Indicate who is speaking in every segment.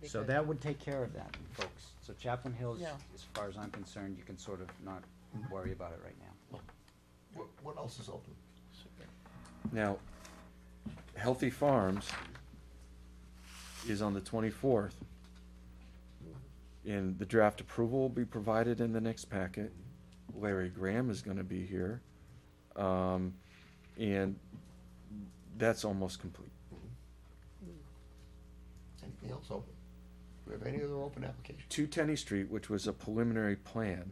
Speaker 1: be
Speaker 2: So
Speaker 1: good.
Speaker 2: that would take care of that, folks. So Chaplain Hills,
Speaker 1: Yeah.
Speaker 2: as far as I'm concerned, you can sort of not worry about it right now.
Speaker 3: What, what else is open?
Speaker 4: Now, Healthy Farms is on the twenty-fourth. And the draft approval will be provided in the next packet. Larry Graham is gonna be here. Um, and that's almost complete.
Speaker 3: Anything else open? Do we have any other open applications?
Speaker 4: Two Tenny Street, which was a preliminary plan,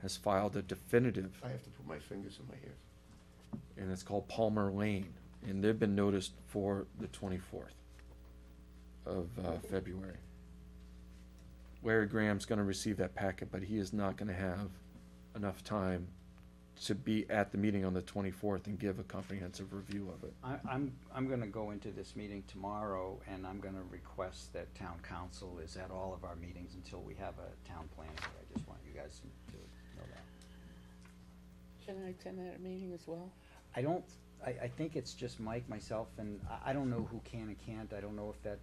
Speaker 4: has filed a definitive,
Speaker 3: I have to put my fingers in my ears.
Speaker 4: and it's called Palmer Lane. And they've been noticed for the twenty-fourth of, uh, February. Larry Graham's gonna receive that packet, but he is not gonna have enough time to be at the meeting on the twenty-fourth and give a comprehensive review of it.
Speaker 2: I, I'm, I'm gonna go into this meeting tomorrow and I'm gonna request that town council is at all of our meetings until we have a town planner. I just want you guys to know that.
Speaker 1: Can I attend that meeting as well?
Speaker 2: I don't, I, I think it's just Mike, myself, and I, I don't know who can and can't, I don't know if that,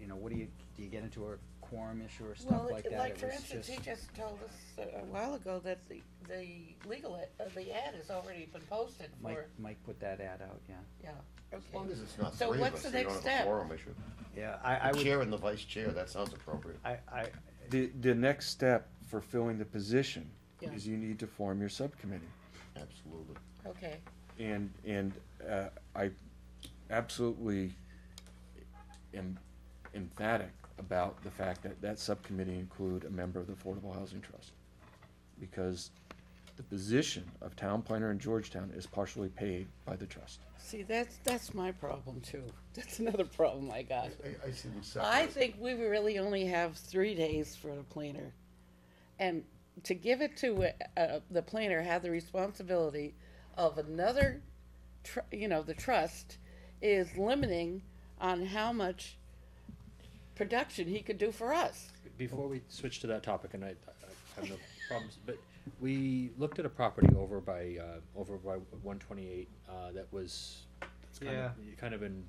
Speaker 2: you know, what do you, do you get into a quorum issue or stuff like that?
Speaker 1: Well, like
Speaker 2: It
Speaker 1: for
Speaker 2: was
Speaker 1: instance, he
Speaker 2: just-
Speaker 1: just told us a a while ago that the, the legal, ad- uh, the ad has already been posted
Speaker 2: Mike,
Speaker 1: for,
Speaker 2: Mike put that ad out, yeah.
Speaker 1: yeah,
Speaker 3: As long
Speaker 1: okay.
Speaker 3: as it's not
Speaker 1: So
Speaker 3: three of
Speaker 1: what's
Speaker 3: us,
Speaker 1: the
Speaker 3: you don't
Speaker 1: next
Speaker 3: have a
Speaker 1: step?
Speaker 3: quorum issue.
Speaker 2: Yeah, I, I
Speaker 3: The
Speaker 2: would,
Speaker 3: chair and the vice chair, that sounds appropriate.
Speaker 2: I, I,
Speaker 4: The, the next step for filling the position
Speaker 1: Yeah.
Speaker 4: is you need to form your subcommittee.
Speaker 3: Absolutely.
Speaker 1: Okay,
Speaker 4: And, and, uh, I absolutely am emphatic about the fact that that subcommittee include a member of the Affordable Housing Trust. Because the position of town planner in Georgetown is partially paid by the trust.
Speaker 1: see, that's, that's my problem too. That's another problem I got.
Speaker 3: I, I see them separate.
Speaker 1: I think we really only have three days for the planner. And to give it to, uh, uh, the planner have the responsibility of another, tr- you know, the trust is limiting on how much production he could do for us.
Speaker 5: Before we switch to that topic, and I, I have no problems, but we looked at a property over by, uh, over by one twenty-eight, uh, that was, it's kind of, kind of in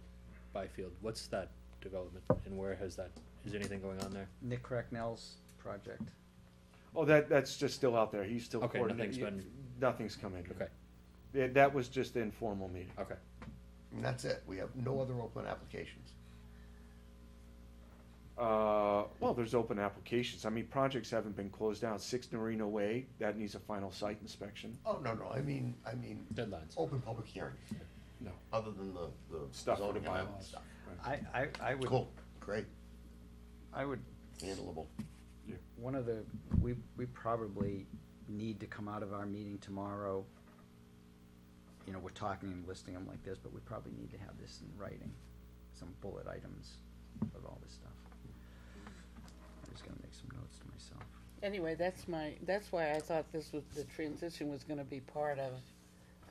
Speaker 5: Byfield, what's that development, and where has that, is anything going on there?
Speaker 2: Nick Cracknell's project,
Speaker 4: Oh, that, that's just still out there, he's still
Speaker 5: Okay,
Speaker 4: coordinating.
Speaker 5: nothing's been-
Speaker 4: Nothing's come in.
Speaker 5: Okay,
Speaker 4: That, that was just the informal meeting.
Speaker 5: okay,
Speaker 3: And that's it. We have no other open applications.
Speaker 4: Uh, well, there's open applications. I mean, projects haven't been closed down. Six Norino Way, that needs a final site inspection.
Speaker 3: Oh, no, no, I mean, I mean,
Speaker 5: deadlines.
Speaker 3: open public hearings,
Speaker 4: No.
Speaker 3: other than the, the
Speaker 4: Stuff for the
Speaker 3: zoning bylaw
Speaker 4: bylaws.
Speaker 3: stuff.
Speaker 2: I, I, I would,
Speaker 3: Cool, great,
Speaker 2: I would,
Speaker 3: handleable.
Speaker 2: one of the, we, we probably need to come out of our meeting tomorrow. You know, we're talking and listing them like this, but we probably need to have this in writing, some bullet items of all this stuff. I'm just gonna make some notes to myself.
Speaker 1: Anyway, that's my, that's why I thought this was, the transition was gonna be part of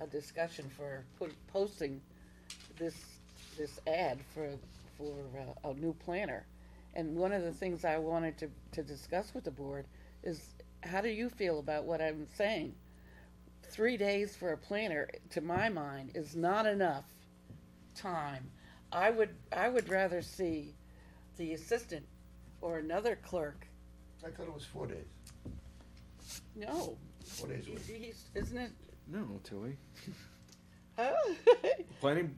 Speaker 1: a discussion for put- posting this, this ad for, for uh, a new planner. And one of the things I wanted to, to discuss with the board is, how do you feel about what I'm saying? Three days for a planner, to my mind, is not enough time. I would, I would rather see the assistant or another clerk,
Speaker 3: I thought it was four days,
Speaker 1: no,
Speaker 3: four days a
Speaker 1: He's,
Speaker 3: week.
Speaker 1: he's, isn't it?
Speaker 4: No, Tilly.
Speaker 1: Oh.
Speaker 4: Planning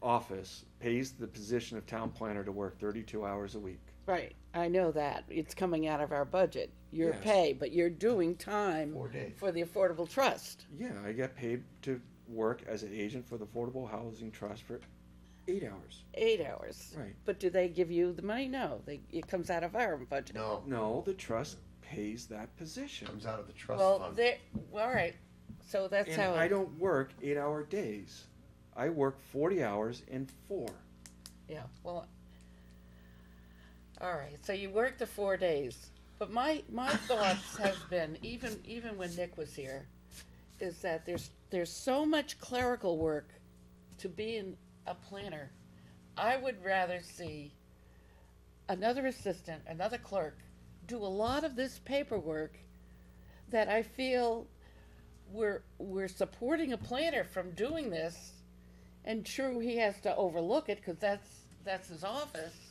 Speaker 4: office pays the position of town planner to work thirty-two hours a week.
Speaker 1: right. I know that. It's coming out of our budget, your
Speaker 4: Yes.
Speaker 1: pay, but you're doing time
Speaker 3: Four days.
Speaker 1: for the Affordable Trust.
Speaker 4: Yeah, I get paid to work as an agent for the Affordable Housing Trust for eight hours.
Speaker 1: Eight hours.
Speaker 4: Right.
Speaker 1: But do they give you the money? No. They, it comes out of our budget.
Speaker 3: No,
Speaker 4: No, the trust pays that position.
Speaker 3: comes out of the trust
Speaker 1: Well,
Speaker 3: fund.
Speaker 1: there, all right. So that's
Speaker 4: And
Speaker 1: how.
Speaker 4: I
Speaker 1: it-
Speaker 4: don't work eight-hour days. I work forty hours and four.
Speaker 1: Yeah, well, all right, so you worked the four days, but my, my thoughts has been, even, even when Nick was here, is that there's, there's so much clerical work to being a planner. I would rather see another assistant, another clerk, do a lot of this paperwork that I feel we're, we're supporting a planner from doing this and true, he has to overlook it because that's that's his office.